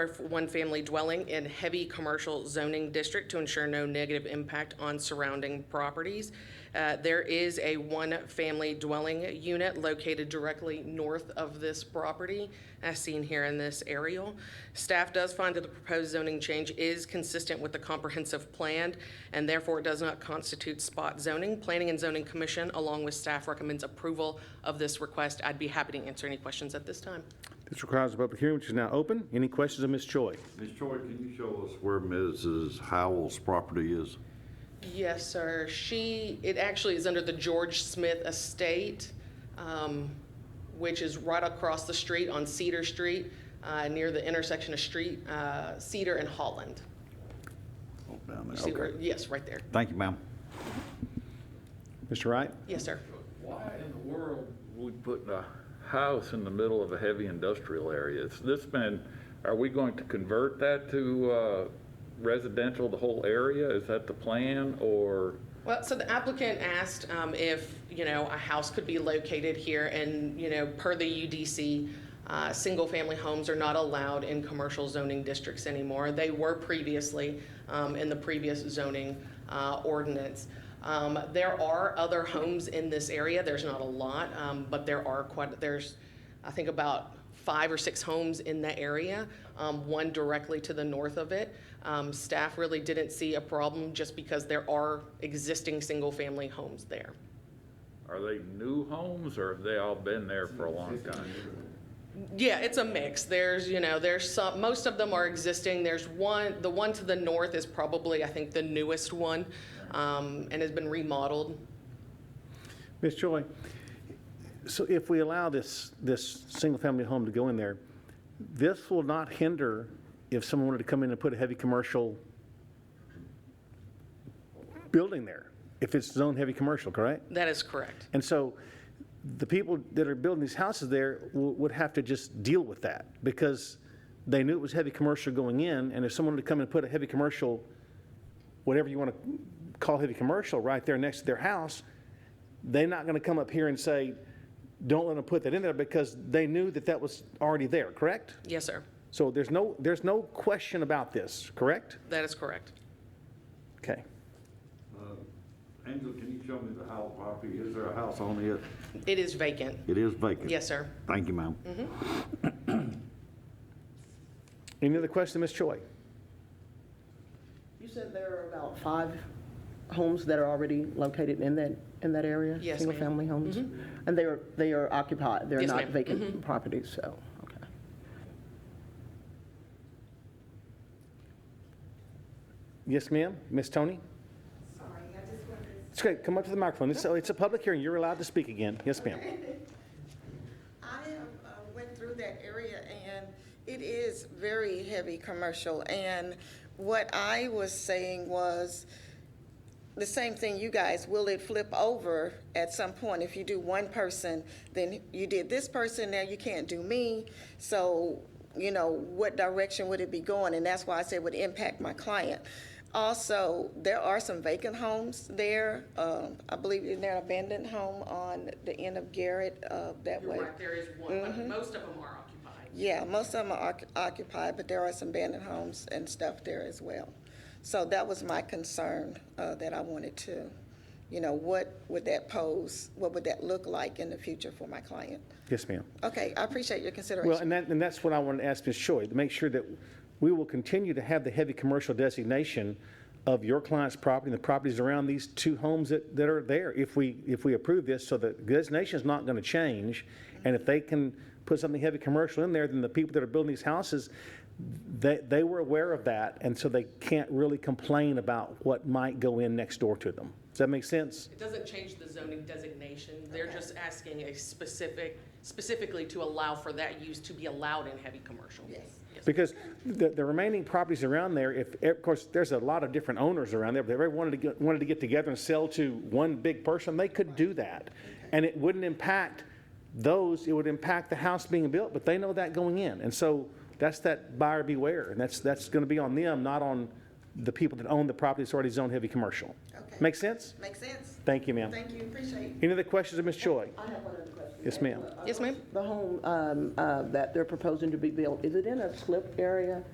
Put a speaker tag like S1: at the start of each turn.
S1: one-family dwelling in heavy commercial zoning district to ensure no negative impact on surrounding properties. Uh, There is a one-family dwelling unit located directly north of this property, as seen here in this aerial. Staff does find that the proposed zoning change is consistent with the comprehensive plan, and therefore it does not constitute spot zoning. Planning and Zoning Commission, along with staff, recommends approval of this request. I'd be happy to answer any questions at this time.
S2: This requires a public hearing, which is now open. Any questions of Ms. Choi?
S3: Ms. Choi, can you show us where Mrs. Howell's property is?
S1: Yes, sir. She, it actually is under the George Smith Estate, um, which is right across the street on Cedar Street, uh, near the intersection of Street, uh, Cedar and Holland.
S3: Oh, down
S1: You
S3: there.
S1: see where-
S3: Okay.
S1: Yes, right there.
S3: Thank you, ma'am.
S2: Mr. Wright?
S1: Yes, sir.
S4: Why in the world we put a house in the middle of a heavy industrial area? Has this been, are we going to convert that to uh, residential, the whole area? Is that the plan, or?
S1: Well, so the applicant asked um, if, you know, a house could be located here, and, you know, per the UDC, uh, single-family homes are not allowed in commercial zoning districts anymore. They were previously um, in the previous zoning uh, ordinance. Um, There are other homes in this area, there's not a lot, um, but there are quite, there's, I think about five or six homes in the area, um, one directly to the north of it. Um, Staff really didn't see a problem just because there are existing single-family homes there.
S4: Are they new homes, or have they all been there for a long time?
S1: Yeah, it's a mix. There's, you know, there's some, most of them are existing. There's one, the one to the north is probably, I think, the newest one um, and has been remodeled.
S2: Ms. Choi, so if we allow this, this single-family home to go in there, this will not hinder if someone wanted to come in and put a heavy commercial building there, if it's zone heavy commercial, correct?
S1: That is correct.
S2: And so the people that are building these houses there w- would have to just deal with that because they knew it was heavy commercial going in, and if someone were to come and put a heavy commercial, whatever you want to call heavy commercial, right there next to their house, they're not going to come up here and say, don't let them put that in there because they knew that that was already there, correct?
S1: Yes, sir.
S2: So there's no, there's no question about this, correct?
S1: That is correct.
S2: Okay.
S3: Angela, can you show me the Howell property? Is there a house on it?
S1: It is vacant.
S3: It is vacant.
S1: Yes, sir.
S3: Thank you, ma'am.
S2: Any other question, Ms. Choi?
S5: You said there are about five homes that are already located in that, in that area?
S1: Yes, ma'am. Mm-hmm.
S5: Single-family homes? And they are, they are occupied? They're
S1: Yes,
S5: not
S1: ma'am. Mm-hmm.
S5: vacant properties, so, okay.
S2: Yes, ma'am? Ms. Tony?
S6: Sorry, I just wanted to
S2: It's okay, come up to the microphone. It's, it's a public hearing, you're allowed to speak again. Yes, ma'am.
S6: I have uh, went through that area and it is very heavy commercial. And what I was saying was the same thing you guys, will it flip over at some point? If you do one person, then you did this person, now you can't do me. So, you know, what direction would it be going? And that's why I said it would impact my client. Also, there are some vacant homes there. Um, I believe in an abandoned home on the end of Garrett, uh, that way.
S1: There is one, but most of them are occupied.
S6: Yeah, most of them are oc- occupied, but there are some abandoned homes and stuff there as well. So that was my concern uh, that I wanted to, you know, what would that pose? What would that look like in the future for my client?
S2: Yes, ma'am.
S6: Okay, I appreciate your
S2: Well,
S6: consideration.
S2: and that, and that's what I wanted to ask Ms. Choi, to make sure that we will continue to have the heavy commercial designation of your client's property and the properties around these two homes that, that are there if we, if we approve this, so the designation is not going to change. And if they can put something heavy commercial in there, then the people that are building these houses, they, they were aware of that, and so they can't really complain about what might go in next door to them. Does that make sense?
S1: It doesn't change the zoning designation, they're just asking a specific, specifically to allow for that use to be allowed in heavy commercial.
S6: Yes.
S2: Because the, the remaining properties around there, if, of course, there's a lot of different owners around there, but if everyone wanted to get, wanted to get together and sell to one big person, they could do that. And it wouldn't impact those, it would impact the house being built, but they know that going in. And so that's that buyer beware, and that's, that's gonna be on them, not on the people that own the property that's already zoned heavy commercial.
S6: Okay.
S2: Make sense?
S6: Makes sense?
S2: Thank you, ma'am.
S6: Thank you, appreciate it.
S2: Any other questions of Ms. Choi?
S5: I have one other question.
S2: Yes, ma'am.
S1: Yes, ma'am?
S5: The home um, uh, that they're proposing to be built, is it in a slip area?